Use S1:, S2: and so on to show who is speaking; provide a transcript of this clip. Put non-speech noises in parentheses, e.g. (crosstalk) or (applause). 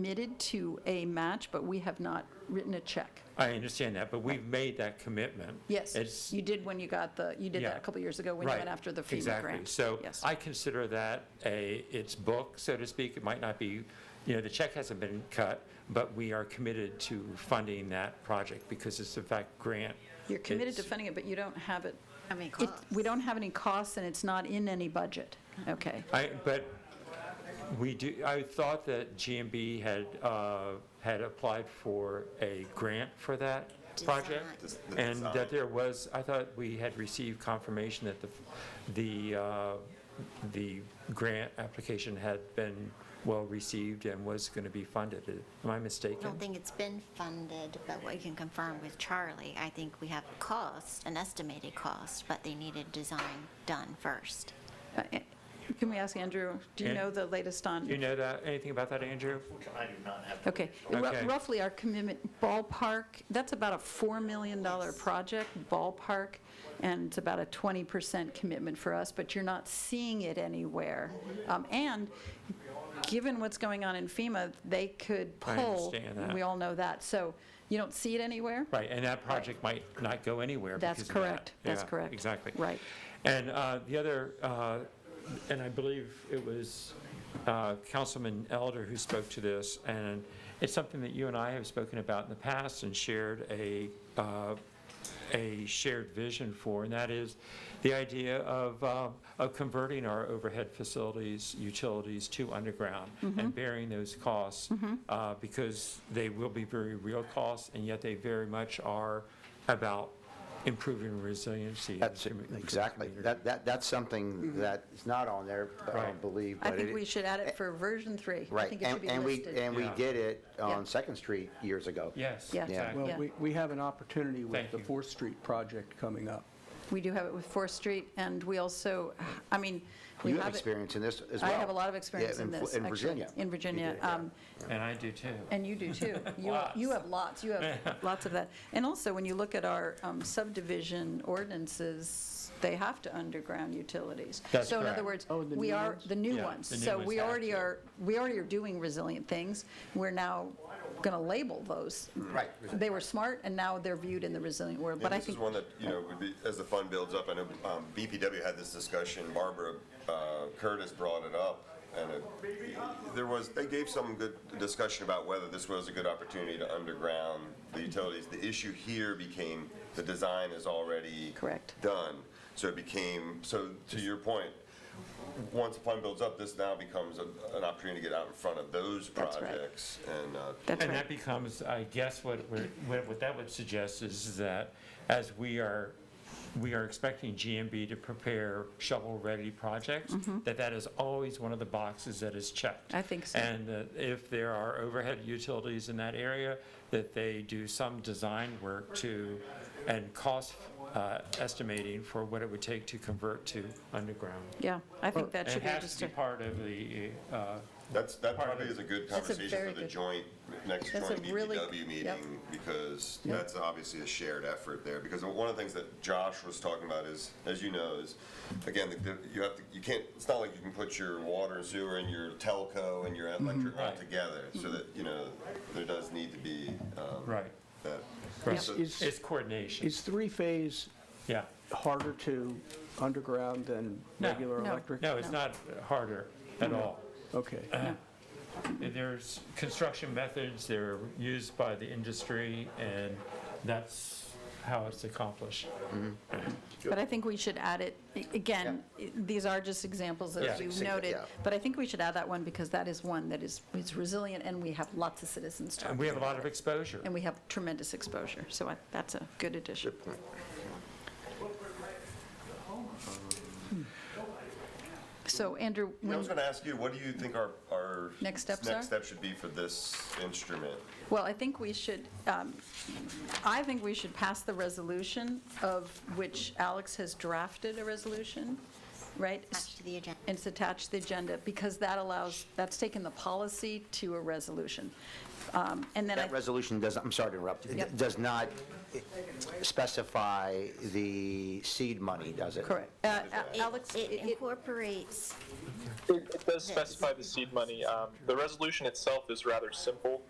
S1: committed to a match, but we have not written a check.
S2: I understand that, but we've made that commitment.
S1: Yes,
S2: It's-
S1: you did when you got the, you did that
S2: Yeah.
S1: a couple years ago when you went
S2: right,
S1: after the FEMA
S2: exactly.
S1: grant.
S2: So
S1: Yes.
S2: I consider that a, it's book, so to speak. It might not be, you know, the check hasn't been cut, but we are committed to funding that project because it's in fact grant.
S1: You're committed to
S2: It's-
S1: funding it, but you don't have it,
S3: I mean,
S1: it-
S3: costs.
S1: we don't have any costs and it's not in any budget. Okay.
S2: I, but we do, I thought that GMB had, uh, had applied for a grant for that project.
S3: Design.
S4: The
S2: And
S4: design.
S2: that there was, I thought we had received confirmation that the, the, uh, the grant application had been well-received and was going to be funded. Am I
S3: I don't
S2: mistaken?
S3: think it's been funded, but what you can confirm with Charlie, I think we have costs, an estimated cost, but they needed design done first.
S1: Uh, eh, Can we ask Andrew, do you
S2: An-
S1: know the latest on?
S2: Do you know that, anything about that, Andrew?
S4: I do not have.
S1: Okay, Ru-
S2: Okay.
S1: roughly our commitment ballpark, that's about a $4 million project ballpark, and it's about a 20% commitment for us, but you're not seeing it anywhere. Um, And given what's going on in FEMA, they could
S2: I
S1: pull.
S2: understand that.
S1: We all know that, so you don't see it anywhere?
S2: Right, and that project might not go anywhere
S1: That's
S2: because of that.
S1: correct. That's
S2: Yeah,
S1: correct.
S2: Exactly.
S1: Right.
S2: And uh, the other, uh, and I believe it was uh, Councilman Elder who spoke to this, and it's something that you and I have spoken about in the past and shared a, uh, a shared vision for, and that is the idea of, uh, of converting our overhead facilities, utilities to underground
S1: Mm-hmm.
S2: and bearing those costs, uh, because they will be very real costs, and yet they very much are about improving resiliency. and
S5: That's,
S2: improving-
S5: exactly, that, that, that's something that is not on there, I
S2: Mm-hmm. Right.
S5: don't believe,
S1: I
S5: but
S1: think
S5: it-
S1: we should add it for version three. I
S5: Right,
S1: think it should
S5: and,
S1: be
S5: and we,
S1: listed.
S5: and we
S2: Yeah.
S5: did it
S1: Yeah.
S5: on Second Street years ago.
S2: Yes.
S1: Yeah.
S2: exactly.
S1: Yeah.
S6: Well, we, we have an opportunity
S2: Thank
S6: with the
S2: you.
S6: Fourth Street project coming up.
S1: We do have it with Fourth Street, and we also, I mean, we
S5: You
S1: have it.
S5: have experience in this as well.
S1: I have a lot of
S5: Yeah,
S1: experience in
S5: Fl-
S1: this,
S5: In
S1: actually.
S5: Virginia.
S1: In Virginia. Um,
S2: And I do too.
S1: And you
S2: (laughs)
S1: do too. You have- You have lots, you have lots of that. And also, when you look at our um, subdivision ordinances, they have to underground utilities.
S2: That's
S1: So in other words,
S2: correct.
S6: Oh, the
S1: we
S6: new
S1: are,
S6: ones?
S1: the new
S2: Yeah,
S1: ones.
S2: the new
S1: So
S2: ones
S1: we
S2: have
S1: already
S2: to.
S1: are, we already are doing resilient things. We're now going to label those.
S5: Right.
S1: They were smart, and now they're viewed in the resilient world,
S4: Yeah,
S1: but I
S4: this is
S1: think,
S4: one that, you know, would be, as the fund builds up, I know um, BPW had this discussion, Barbara uh, Curtis brought it up. And it- there was, they gave some good discussion about whether this was a good opportunity to underground the utilities. The issue here became the design is already.
S1: Correct.
S4: Done. So it became, so to your point, once the fund builds up, this now becomes a- an opportunity to get out in front of those
S1: That's right.
S4: projects. And uh,
S1: that's
S2: And that
S1: right.
S2: becomes, I guess what, we're- what what that would suggest is that as we are, we are expecting GMB to prepare shovel-ready projects, that that is always one of the boxes that is checked.
S1: Mm-hmm. I think so.
S2: And that if there are overhead utilities in that area, that they do some design work to, and cost uh, estimating for what it would take to convert to underground.
S1: Yeah, I think that
S2: And
S1: should
S2: it
S1: be
S2: has
S1: just
S2: to
S1: a.
S2: be part of the, uh,
S4: That's, that
S2: Part of
S4: probably
S2: it.
S4: is a good
S1: That's a very
S4: conversation for the
S1: good-
S4: joint, next
S1: That's
S4: joint
S1: a really
S4: BBW
S1: good-
S4: meeting,
S1: yep.
S4: because that's obviously a shared effort there. Because one of the things that Josh was talking about is, as you know, is, again, the- the- you have to, you can't, it's not like you can put your water and sewer and your telco and your
S1: Mm-hmm.
S4: electric all
S2: Right.
S4: together, so that, you know, there does need to be um,
S2: right,
S4: that.
S2: right.
S6: Is, is,
S2: It's coordination,
S6: is three-phase
S2: yeah.
S6: harder to underground than
S2: No.
S6: regular
S1: No.
S6: electric?
S2: No, it's not harder at all.
S6: Okay.
S2: There's construction methods, they're used by the industry, and that's how it's accomplished.
S1: But I think we should add it, a- again, i- these are just examples, as
S2: Yeah.
S1: you
S5: Sig-
S1: noted,
S5: yeah.
S1: but I think we should add that one because that is one that is, is resilient and we have lots of citizens
S2: And
S1: talking
S2: we have a lot
S1: about
S2: of
S1: it.
S2: exposure.
S1: And we have tremendous exposure, so I- that's a good addition. So Andrew,
S4: Yeah, I was
S1: when-
S4: gonna ask you, what do you think our, our.
S1: Next steps are?
S4: Next step should be for this instrument?
S1: well, I think we should, um, I think we should pass the resolution of which Alex has drafted a resolution right?
S3: Attached to the agenda.
S1: And it's attached to the agenda, because that allows, that's taken the policy to a resolution. Um, And then I
S5: That resolution does, I'm sorry to interrupt, It
S1: Yep.
S5: does not specify the seed money, does it?
S1: Correct. Uh, uh,
S3: It-
S1: Alex,
S3: It
S1: it- it-
S3: incorporates
S7: It it does specify the seed money. Um, The resolution itself is rather simple.